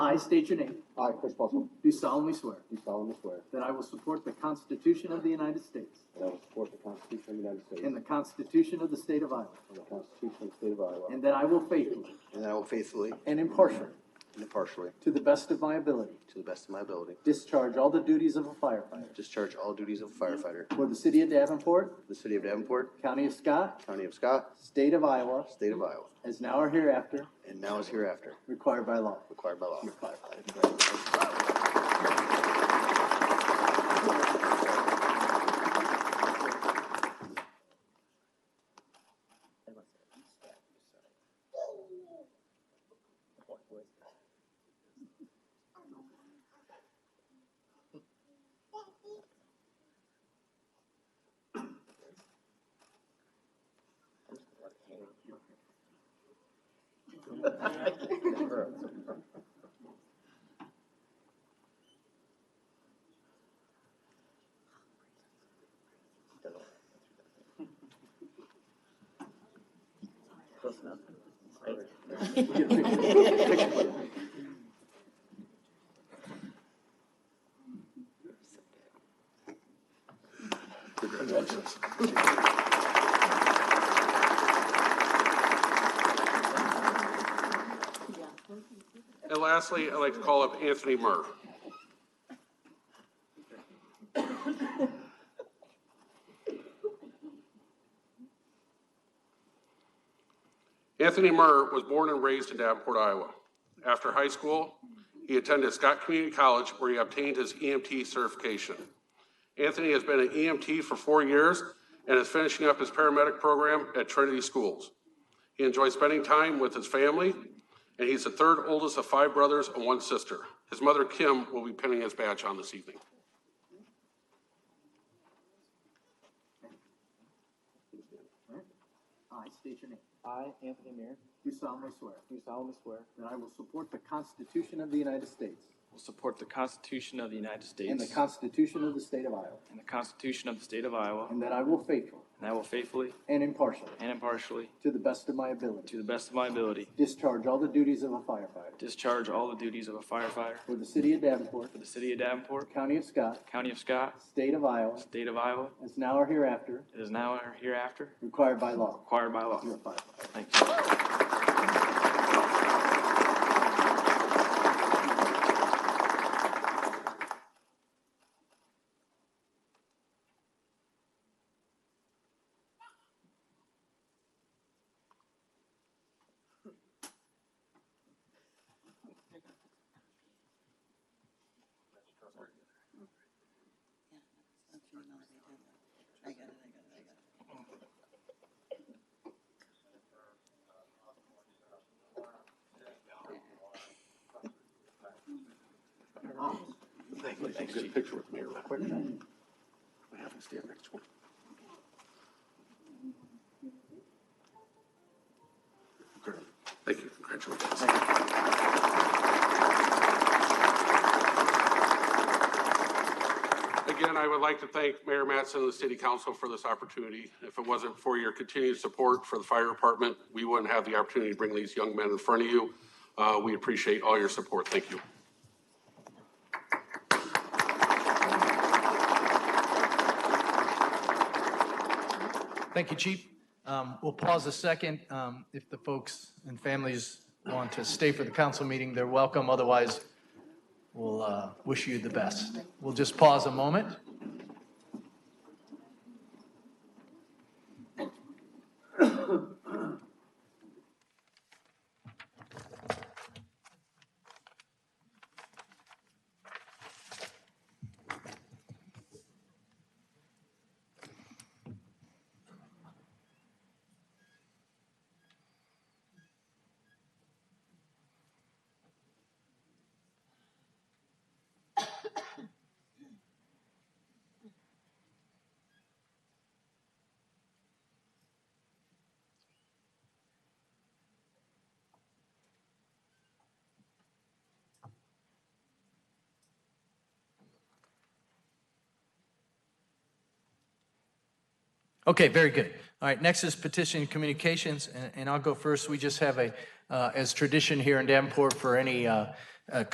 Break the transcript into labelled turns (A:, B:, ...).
A: I state your name,
B: I, Chris Russell,
A: do solemnly swear
B: do solemnly swear
A: that I will support the Constitution of the United States
B: that I will support the Constitution of the United States
A: and the Constitution of the State of Iowa,
B: and the Constitution of the State of Iowa,
A: and that I will faithfully
C: and that I will faithfully
A: and impartially,
C: and impartially,
A: to the best of my ability,
C: to the best of my ability,
A: discharge all the duties of a firefighter
C: discharge all duties of firefighter
A: for the City of Davenport,
C: for the City of Davenport,
A: County of Scott,
C: County of Scott,
A: State of Iowa,
C: State of Iowa,
A: as now or hereafter
C: and now is hereafter
A: required by law.
C: required by law. Congratulations.
D: And lastly, I'd like to call up Anthony Murr. Anthony Murr was born and raised in Davenport, Iowa. After high school, he attended Scott Community College where he obtained his EMT certification. Anthony has been an EMT for four years and is finishing up his paramedic program at Trinity Schools. He enjoys spending time with his family, and he's the third oldest of five brothers and one sister. His mother, Kim, will be pinning his badge on this evening.
A: I state your name,
E: I, Anthony Mayer,
A: do solemnly swear
E: do solemnly swear
A: that I will support the Constitution of the United States
E: will support the Constitution of the United States
A: and the Constitution of the State of Iowa,
E: and the Constitution of the State of Iowa,
A: and that I will faithfully
E: and I will faithfully
A: and impartially,
E: and impartially,
A: to the best of my ability,
E: to the best of my ability,
A: discharge all the duties of a firefighter
E: discharge all the duties of a firefighter
A: for the City of Davenport,
E: for the City of Davenport,
A: County of Scott,
E: County of Scott,
A: State of Iowa,
E: State of Iowa,
A: as now or hereafter
E: as now or hereafter
A: required by law.
E: required by law.
A: You're a firefighter.
E: Thank you.
F: I got it, I got it, I got it.
D: Good picture with Mayor real quick. I have to stand next to him. Good. Thank you, congratulations. Again, I would like to thank Mayor Matson and the city council for this opportunity. If it wasn't for your continued support for the fire department, we wouldn't have the opportunity to bring these young men in front of you. Uh, we appreciate all your support. Thank you.
G: Thank you, Chief. Um, We'll pause a second. Um, If the folks and families want to stay for the council meeting, they're welcome. Otherwise, we'll uh, wish you the best. We'll just pause a moment. Okay, very good. All right, next is petition communications, and- and I'll go first. We just have a, uh, as tradition here in Davenport for any uh, uh,